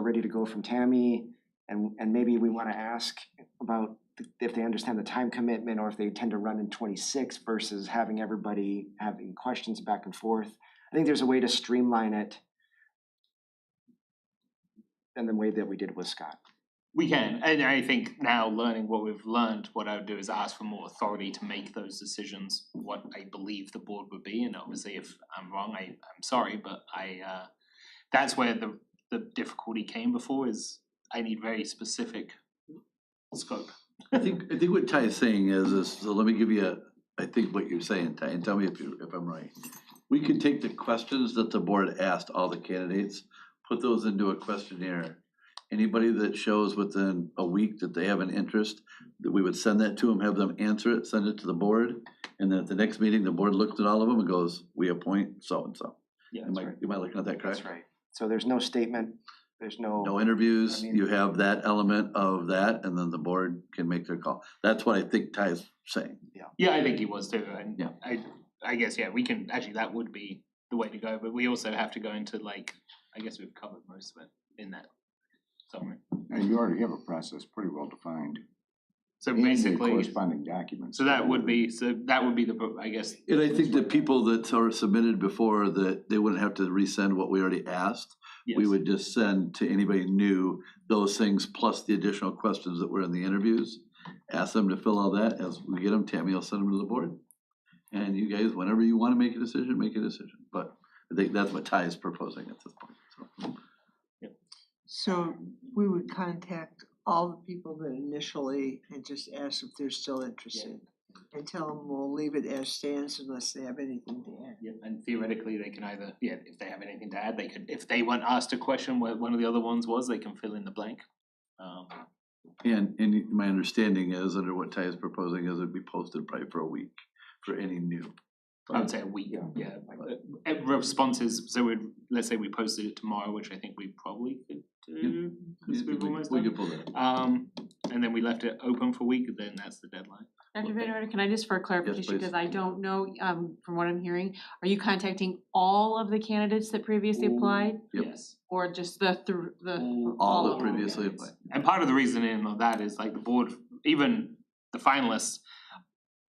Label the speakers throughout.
Speaker 1: ready to go from Tammy. And, and maybe we wanna ask about th- if they understand the time commitment or if they tend to run in twenty-six versus having everybody having questions back and forth. I think there's a way to streamline it than the way that we did with Scott.
Speaker 2: We can, and I think now learning what we've learned, what I would do is ask for more authority to make those decisions, what I believe the board would be, and obviously if I'm wrong, I I'm sorry, but I uh that's where the the difficulty came before is I need very specific scope.
Speaker 3: I think, I think what Ty is saying is, is, so let me give you, a- I think what you're saying, Ty, and tell me if you, if I'm right. We can take the questions that the board asked all the candidates, put those into a questionnaire. Anybody that shows within a week that they have an interest, that we would send that to them, have them answer it, send it to the board. And then at the next meeting, the board looks at all of them and goes, we appoint so-and-so.
Speaker 2: Yeah,
Speaker 3: Am I, am I looking at that correct?
Speaker 1: right. So there's no statement, there's
Speaker 3: No
Speaker 1: no,
Speaker 3: interviews,
Speaker 1: I mean-
Speaker 3: you have that element of that, and then the board can make their call. That's what I think Ty is saying.
Speaker 2: Yeah, I think he was too, and
Speaker 3: Yeah.
Speaker 2: I I guess, yeah, we can, actually, that would be the way to go, but we also have to go into like, I guess we've covered most of it in that summary.
Speaker 4: And you already have a process pretty well defined.
Speaker 2: So
Speaker 4: and the
Speaker 2: basically,
Speaker 4: Corresponding documents.
Speaker 2: so that would be, so that would be the, pro- I guess,
Speaker 3: And I think that people that are submitted before, that they wouldn't have to resend what we already asked.
Speaker 2: yes.
Speaker 3: We would just send to anybody new those things plus the additional questions that were in the interviews. Ask them to fill all that, as we get them, Tammy will send them to the board. And you guys, whenever you wanna make a decision, make a decision, but I think that's what Ty is proposing at this point, so.
Speaker 5: So we would contact all the people that initially and just ask if they're still interested. And tell them we'll leave it as stands unless they have anything to add.
Speaker 2: Yeah, and theoretically, they can either, yeah, if they have anything to add, they could, if they weren't asked a question where one of the other ones was, they can fill in the blank. Um,
Speaker 3: And, and my understanding is, under what Ty is proposing, is it'd be posted probably for a week for any new.
Speaker 2: I would say a week,
Speaker 1: Yeah.
Speaker 2: yeah, like, uh, uh, responses, so we'd, let's say we posted it tomorrow, which I think we probably could do,
Speaker 3: We
Speaker 2: because we've almost
Speaker 3: we
Speaker 2: done.
Speaker 3: could pull that.
Speaker 2: Um, and then we left it open for a week, then that's the deadline.
Speaker 6: Dr. Van Order, can I just for clarification,
Speaker 3: please.
Speaker 6: because I don't know, um, from what I'm hearing, are you contacting all of the candidates that previously applied?
Speaker 3: Yep.
Speaker 2: Yes.
Speaker 6: Or just the through, the,
Speaker 2: All
Speaker 3: All
Speaker 6: all
Speaker 3: that
Speaker 6: of them?
Speaker 3: previously
Speaker 2: candidates.
Speaker 3: applied.
Speaker 2: And part of the reasoning of that is like the board, even the finalists,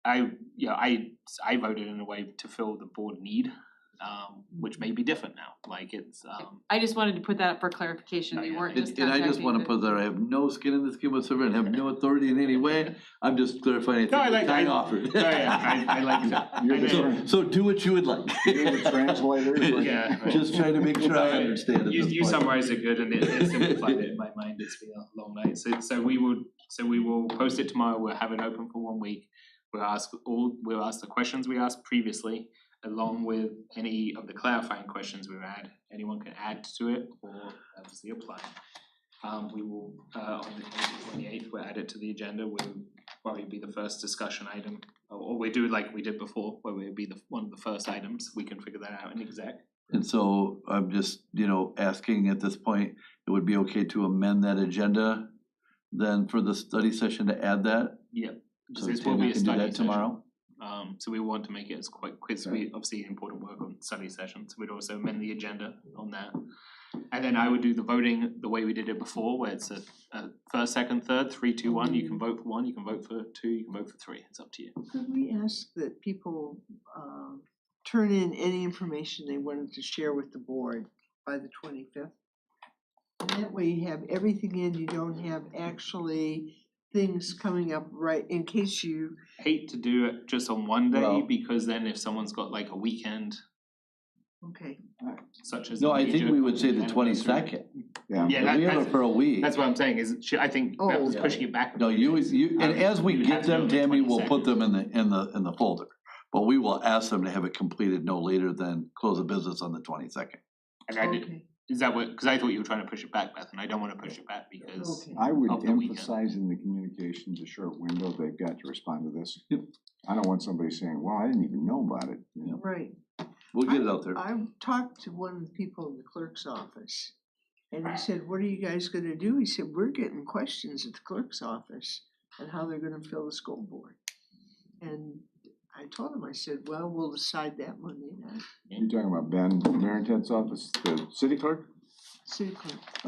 Speaker 2: I, you know, I, I voted in a way to fill the board need, um, which may be different now, like it's, um,
Speaker 6: I just wanted to put that up for clarification,
Speaker 2: Oh,
Speaker 6: you
Speaker 2: yeah,
Speaker 6: weren't
Speaker 2: it-
Speaker 6: just
Speaker 3: And, and I just
Speaker 6: contacting
Speaker 3: wanna
Speaker 6: the-
Speaker 3: put that, I have no skin in this game whatsoever and have no authority in any way, I'm just clarifying anything
Speaker 2: No, I
Speaker 3: that
Speaker 2: like-
Speaker 3: Ty
Speaker 2: I-
Speaker 3: offered.
Speaker 2: no, yeah, I- I like that.
Speaker 4: You're
Speaker 2: I
Speaker 4: the
Speaker 2: know.
Speaker 4: tran-
Speaker 3: So do what you would like.
Speaker 4: you're the translator. but-
Speaker 2: Yeah.
Speaker 3: Just trying to make sure I
Speaker 2: No,
Speaker 3: understand at
Speaker 2: You
Speaker 3: this
Speaker 2: you
Speaker 3: point.
Speaker 2: summarized it good and it it simplified it in my mind, it's been a long night, so so we will, so we will post it tomorrow, we'll have it open for one week. We'll ask all, we'll ask the questions we asked previously, along with any of the clarifying questions we had, anyone can add to it or obviously apply. Um we will, uh on the twenty eighth, we'll add it to the agenda, will probably be the first discussion item. Or or we do like we did before, where we'll be the one of the first items, we can figure that out in exec.
Speaker 3: And so I'm just, you know, asking at this point, it would be okay to amend that agenda then for the study session to add that?
Speaker 2: Because
Speaker 3: So
Speaker 2: this will
Speaker 3: Tammy
Speaker 2: be a
Speaker 3: can do
Speaker 2: study
Speaker 3: that
Speaker 2: session.
Speaker 3: tomorrow?
Speaker 2: Um, so we want to make it as quick, because we obviously important work on study sessions, we'd also amend the agenda on that. And then I would do the voting the way we did it before, where it's a, a first, second, third, three, two, one, you can vote for one, you can vote for two, you can vote for three, it's up to you.
Speaker 5: Could we ask that people um turn in any information they wanted to share with the board by the twenty fifth? And that way you have everything in, you don't have actually things coming up right in case you,
Speaker 2: Hate to do it just on one day,
Speaker 3: Well-
Speaker 2: because then if someone's got like a weekend,
Speaker 5: okay.
Speaker 2: such as.
Speaker 3: No,
Speaker 2: a
Speaker 3: I think
Speaker 2: major
Speaker 3: we would say the
Speaker 2: anniversary-
Speaker 3: twenty second.
Speaker 2: Yeah, that-
Speaker 3: We have it
Speaker 2: that's,
Speaker 3: for a week.
Speaker 2: that's what I'm saying, is, she- I think Beth
Speaker 5: Oh.
Speaker 2: was pushing it back.
Speaker 3: No, you, you,
Speaker 2: I
Speaker 3: and
Speaker 2: would-
Speaker 3: as
Speaker 2: you
Speaker 3: we
Speaker 2: would have
Speaker 3: get
Speaker 2: to do
Speaker 3: them,
Speaker 2: it on the
Speaker 3: Tammy, we'll
Speaker 2: 22nd.
Speaker 3: put them in the, in the, in the folder. But we will ask them to have it completed no later than close of business on the twenty-second.
Speaker 2: And I did,
Speaker 5: Okay,
Speaker 2: is that what, because I thought you were trying to push it back, Beth, and I don't wanna push it back because.
Speaker 5: okay.
Speaker 4: I
Speaker 2: Of
Speaker 4: would
Speaker 2: the weekend.
Speaker 4: emphasize in the communications, a short window, they've got to respond to this. I don't want somebody saying, well, I didn't even know about it, you know?
Speaker 5: Right.
Speaker 3: We'll get it out there.
Speaker 5: I talked to one of the people in the clerk's office. And he said, what are you guys gonna do? He said, we're getting questions at the clerk's office on how they're gonna fill the school board. And I told him, I said, well, we'll decide that Monday night,
Speaker 4: You're talking about Ben Marentet's office, the city clerk?
Speaker 5: city clerk.